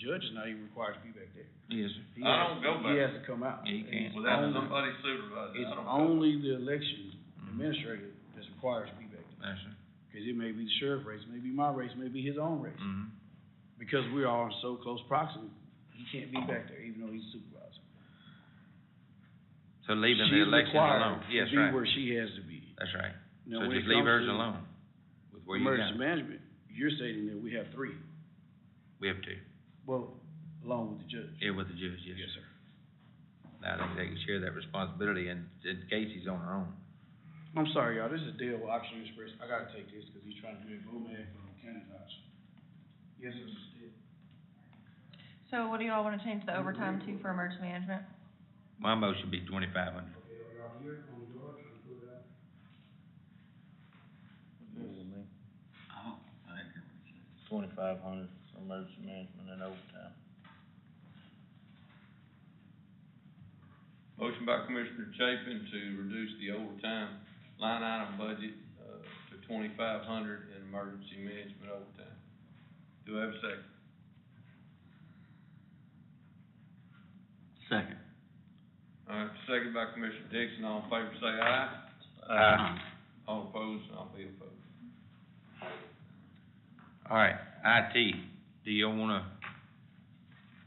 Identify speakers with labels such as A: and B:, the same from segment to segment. A: judge is not even required to be back there.
B: Yes, sir.
A: He
C: I
A: has-
C: don't go back.
A: He has to come out.
B: Yeah, he
A: And
B: can't.
A: it's
C: Well, that's
A: only-
C: somebody supervising, I
A: It's
C: don't know.
A: only the election
B: Mm-hmm.
A: administrator that's required to be back there,
B: Yes, sir.
A: cause it may be the sheriff race, maybe my race, maybe his own race.
B: Mm-hmm.
A: Because we are in so close proximity, he can't be back there, even though he's supervisor.
B: So leaving the
A: She's
B: election
A: required
B: alone,
A: to
B: yes,
A: be
B: right,
A: where she has to be.
B: that's right.
A: Now,
B: So
A: when it
B: just leave
A: comes
B: hers
A: to
B: alone with where you got,
A: Emergency
B: it.
A: management, you're stating that we have three,
B: we have two,
A: well, along with the judge.
B: yeah, with the judge, yes.
A: Yes, sir.
B: I think they can share that responsibility and, and Casey's on her own.
A: I'm sorry, y'all, this is Dale with Oxygen Express, I gotta take this, cause he's trying to do a boomerang from County House. Yes, sir.
D: So what do y'all wanna change the overtime to for emergency management?
B: My motion be twenty-five hundred.
E: Twenty-five hundred for emergency management and overtime.
C: Motion by Commissioner Chapin to reduce the overtime line item budget, uh, to twenty-five hundred in emergency management overtime. Do I have a second?
E: Second.
C: All right, second by Commissioner Dixon, all in favor say aye. All opposed, I'll be opposed.
B: All right, IT, do you wanna,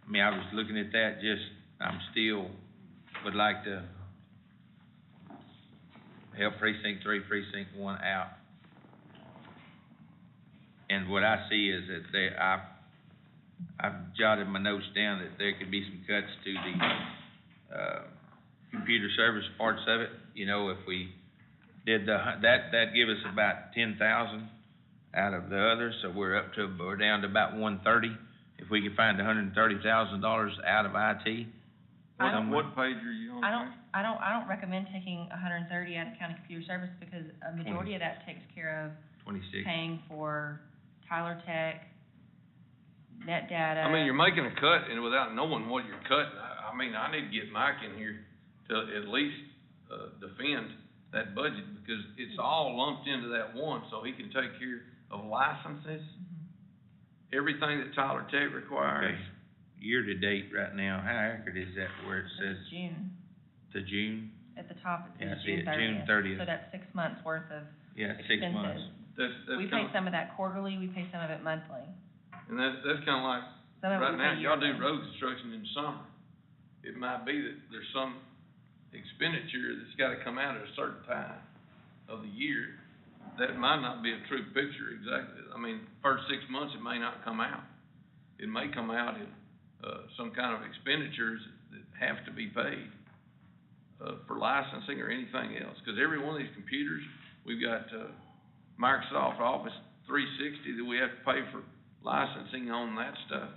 B: I mean, I was looking at that, just, I'm still, would like to help precinct three, precinct one out. And what I see is that they, I, I've jotted my notes down that there could be some cuts to the, uh, computer service parts of it, you know, if we did the, hu- that, that'd give us about ten thousand out of the other, so we're up to, we're down to about one thirty. If we could find hundred and thirty thousand dollars out of IT,
D: I
C: What,
D: don't-
C: what page are you on?
D: I don't, I don't, I don't recommend taking hundred and thirty out of county computer service because a majority of that takes care of
B: twenty-six.
D: paying for Tyler Tech, net data.
C: I mean, you're making a cut and without knowing what you're cutting, I, I mean, I need to get Mike in here to at least, uh, defend that budget because it's all lumped into that one, so he can take care of licenses,
D: Mm-hmm.
C: everything that Tyler Tech requires.
B: Okay. Year-to-date right now, how accurate is that where it
D: This
B: says
D: is June,
B: to June?
D: at the top, it
B: Yeah, I
D: says
B: see
D: June
B: it, June
D: thirtieth.
B: 30th.
D: So that's six months worth of
B: Yeah, six months.
D: expenses.
C: That's, that's
D: We pay
C: kinda,
D: some of that quarterly, we pay some of it monthly.
C: and that's, that's kinda like,
D: Some of it
C: right
D: we
C: now,
D: pay
C: y'all do
D: yearly.
C: road construction in summer. It might be that there's some expenditure that's gotta come out at a certain time of the year. That might not be a true picture exactly. I mean, first six months, it may not come out. It may come out in, uh, some kind of expenditures that have to be paid, uh, for licensing or anything else. Cause every one of these computers, we've got, uh, Microsoft Office three sixty that we have to pay for licensing on that stuff.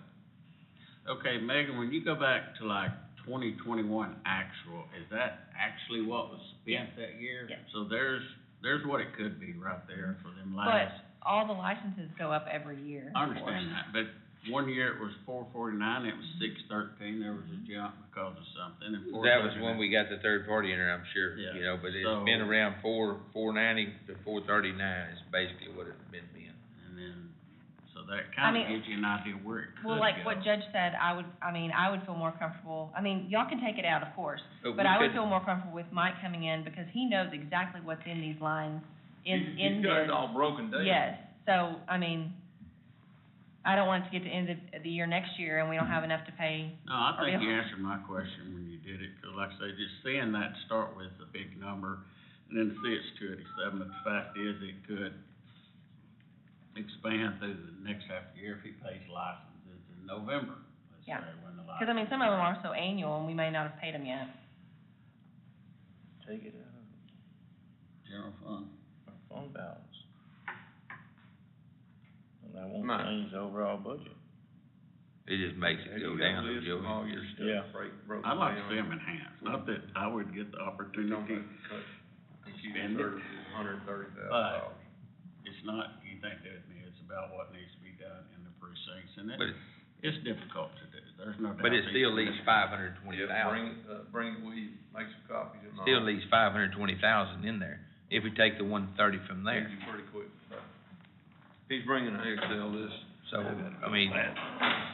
E: Okay, Megan, when you go back to like twenty twenty-one actual, is that actually what was spent that year?
D: Yes.
E: So there's, there's what it could be right there for them
D: But
E: last.
D: all the licenses go up every year.
E: I
D: of course.
E: understand that, but one year it was four forty-nine, it was six thirteen, there was a jump because of something, and four
B: That was when
E: thirty-nine.
B: we got the third party in there, I'm sure,
E: Yeah,
B: you know, but
E: so-
B: it's been around four, four ninety to four thirty-nine is basically what it's been being.
E: And then, so that
D: I
E: kinda
D: mean-
E: gives you an idea where it could go.
D: Well, like what Judge said, I would, I mean, I would feel more comfortable, I mean, y'all can take it out, of course, but
B: we
D: I would
B: could-
D: feel more comfortable with Mike coming in because he knows exactly what's in these lines, in,
C: You-
D: in
C: You've got
D: this.
C: it all broken down.
D: Yes, so, I mean, I don't want it to get to end of the year next year and we don't have enough to pay.
E: No, I
D: Are
E: think
D: we
E: you
D: on?
E: answered my question when you did it, 'cause like I say, just seeing that start with a big number, and then see it's two eighty-seven, but the fact is, it could expand through the next half year if he pays licenses in November, let's
D: Yeah.
E: say, when the license.
D: Cause I mean, some of them are so annual and we may not have paid them yet.
E: Take it out of. General fund.
F: our fund balance. And that won't
C: Right.
F: change the overall budget.
B: It just makes it go down, Joey.
C: All your
F: Yeah.
C: stuff break, broken
E: I'd
C: down.
E: like to see him enhanced, not that I would get the
C: You're talking
E: opportunity,
C: about the cut,
E: Spend
C: computer
E: it.
C: services, hundred and thirty thousand
E: But-
C: dollars.
E: it's not anything to do with me, it's about what needs to be done in the precincts, and
B: But
E: it,
B: it-
E: it's difficult to do, there's no doubt.
B: But it
E: these
B: still leaves
E: commissioners-
B: five hundred and twenty
C: Yeah, bring,
B: thousand.
C: it, uh, bring it with you, make some copies and all.
B: still leaves five hundred and twenty thousand in there, if we take the one thirty from there.
C: Pretty quick. He's bringing an Excel list.
B: So, I mean,